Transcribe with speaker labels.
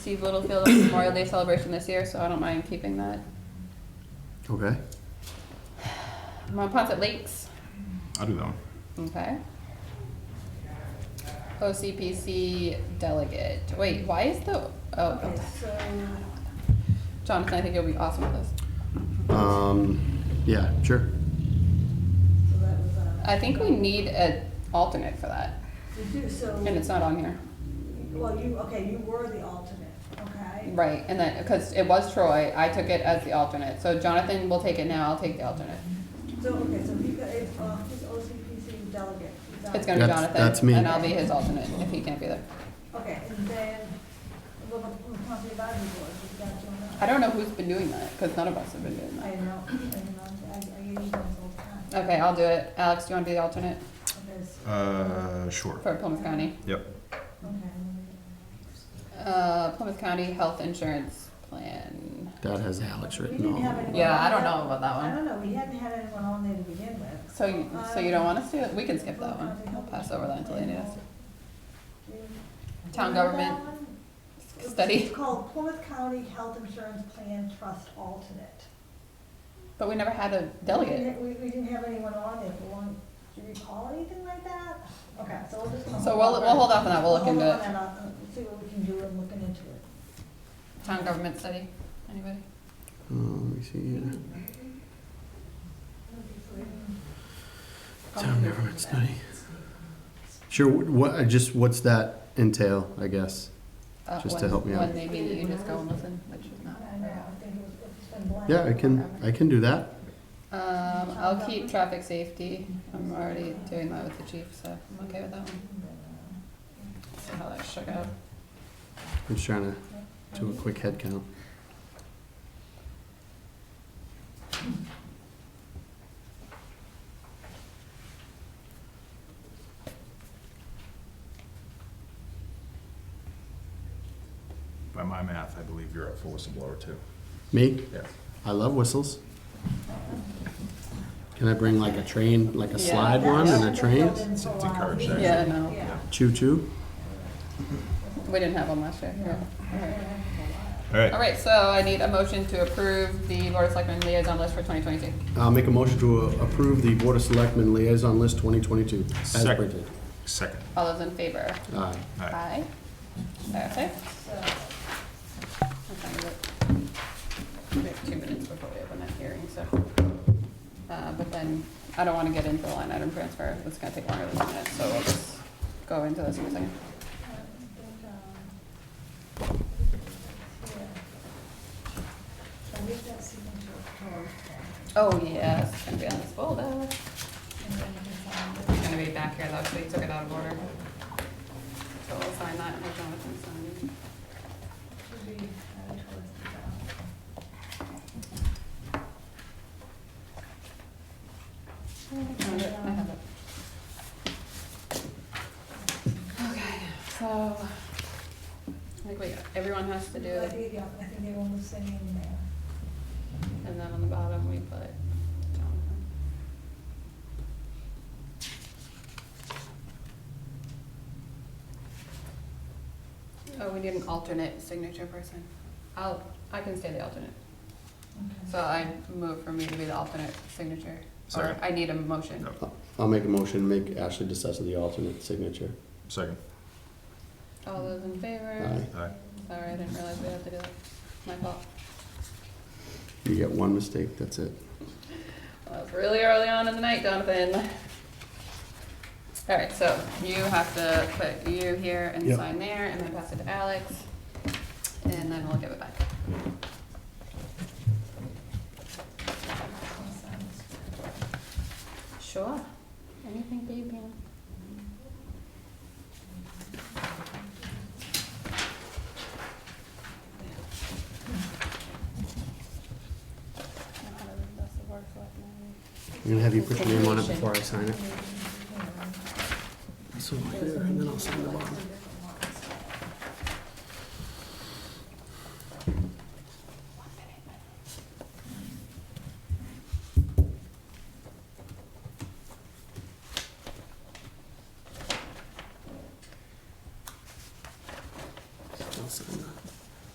Speaker 1: Steve Littlefield at Memorial Day celebration this year, so I don't mind keeping that.
Speaker 2: Okay.
Speaker 1: Mount Ponce Lakes,
Speaker 3: I'll do that one.
Speaker 1: okay. OCPC delegate. Wait, why is the, oh,
Speaker 4: So,
Speaker 1: Jonathan, I think you'll be awesome with this.
Speaker 2: Um, yeah, sure.
Speaker 4: so that was, uh,
Speaker 1: I think we need an alternate for that,
Speaker 4: we do, so,
Speaker 1: and it's not on here.
Speaker 4: well, you, okay, you were the alternate, okay?
Speaker 1: Right, and then, because it was Troy, I took it as the alternate, so Jonathan will take it now, I'll take the alternate.
Speaker 4: So, okay, so he, got- it's, uh, he's OCPC delegate. He's on-
Speaker 1: It's gonna be
Speaker 2: That's- that's
Speaker 1: Jonathan,
Speaker 2: me.
Speaker 1: and I'll be his alternate if he can't be there.
Speaker 4: Okay, and then, what about the Conservation Advisory Board, is that your?
Speaker 1: I don't know who's been doing that, because none of us have been doing
Speaker 4: I
Speaker 1: that.
Speaker 4: know, I know, I, I use those all the time.
Speaker 1: Okay, I'll do it. Alex, do you wanna be the alternate
Speaker 4: Because-
Speaker 3: Uh, sure.
Speaker 1: for Plymouth County?
Speaker 3: Yep.
Speaker 4: Okay.
Speaker 1: Uh, Plymouth County Health Insurance Plan.
Speaker 2: That has Alex
Speaker 4: We
Speaker 2: written
Speaker 4: didn't
Speaker 2: on
Speaker 4: have
Speaker 2: it.
Speaker 4: anyone
Speaker 1: Yeah, I
Speaker 4: on
Speaker 1: don't
Speaker 4: there.
Speaker 1: know about that
Speaker 4: I
Speaker 1: one.
Speaker 4: don't know, we hadn't had anyone on there to begin with. Um,
Speaker 1: So, you- so you don't want us to, we can skip that one. I'll pass over that until they need us. Town government study,
Speaker 4: It's called Plymouth County Health Insurance Plan Trust Alternate.
Speaker 1: but we never had a
Speaker 4: We
Speaker 1: delegate.
Speaker 4: didn't, we, we didn't have anyone on it, we want, do you recall anything like that? Okay, so we'll just.
Speaker 1: So we'll, we'll hold off on that, we'll look
Speaker 4: hold
Speaker 1: into
Speaker 4: on
Speaker 1: it.
Speaker 4: and I'll, uh, See what we can do in looking into it.
Speaker 1: Town government study, anybody?
Speaker 2: Um, let me see here. Town government study. Sure, wh- what, uh, just what's that entail, I guess?
Speaker 1: Uh,
Speaker 2: Just to
Speaker 1: when-
Speaker 2: help me out.
Speaker 1: When they meet, you just go and listen, which is not.
Speaker 4: I know, I think it was- it's been blank.
Speaker 2: Yeah, I can, I can do that.
Speaker 1: Um, I'll keep traffic safety. I'm already doing that with the chief, so I'm okay with that one. See how that shook out.
Speaker 2: I'm just trying to do a quick head count.
Speaker 3: By my math, I believe you're up for whistleblower too.
Speaker 2: Me?
Speaker 1: Oh,
Speaker 3: Yeah.
Speaker 2: I love whistles. Can I bring like a train, like a
Speaker 1: Yeah.
Speaker 2: slide one
Speaker 4: That's-
Speaker 2: and a
Speaker 4: that's
Speaker 2: train?
Speaker 4: been for a
Speaker 3: It's
Speaker 4: while.
Speaker 3: encouraged,
Speaker 4: We-
Speaker 3: actually.
Speaker 1: Yeah, no.
Speaker 4: Yeah.
Speaker 2: Choo choo?
Speaker 1: We didn't have one last year. yeah. Alright.
Speaker 3: All right.
Speaker 1: All right, so I need a motion to approve the Board of Selectmen liaison list for 2022.
Speaker 2: I'll make a motion to uh, approve the Board of Selectmen Liaison List 2022 as
Speaker 3: Second.
Speaker 2: printed.
Speaker 3: Second.
Speaker 1: All those in favor?
Speaker 2: Aye.
Speaker 3: All right.
Speaker 1: Aye. Perfect.
Speaker 4: uh,
Speaker 1: I'll find it. We have two minutes before we open that hearing, so. Uh, But then, I don't want to get into the line item transfer. It's going to take longer than a minute, so we'll just go into this in a second.
Speaker 4: um,
Speaker 1: Oh, yeah, it's going to be on this folder. It's gonna be back here though, so you took it out of order. So we'll sign that and we'll go with and sign.
Speaker 4: uh,
Speaker 1: I have it. Okay, so, I think we, everyone has to do
Speaker 4: I
Speaker 1: it,
Speaker 4: think everyone was singing there.
Speaker 1: and then on the bottom we put Jonathan. Oh, we need an alternate signature person. I'll, I can stay the alternate. So I move for me to be the alternate signature. Or
Speaker 3: Sorry.
Speaker 1: I need a motion.
Speaker 3: No.
Speaker 2: I'll make a motion, to make Ashley DeSessa the alternate signature.
Speaker 3: Second.
Speaker 1: All those in
Speaker 2: Aye.
Speaker 1: favor?
Speaker 3: All right.
Speaker 1: Sorry, I didn't realize we had to do that. My fault.
Speaker 2: You get one mistake, that's it.
Speaker 1: Well, it's really early on in the night, Jonathan. All right, so you have to put you here and
Speaker 2: Yep.
Speaker 1: sign there, and then pass it to Alex, and then we'll give it back. Sure. Anything for you, Pam.
Speaker 2: I'm gonna have you put your name on it before I sign it. So, and then I'll sign the bottom.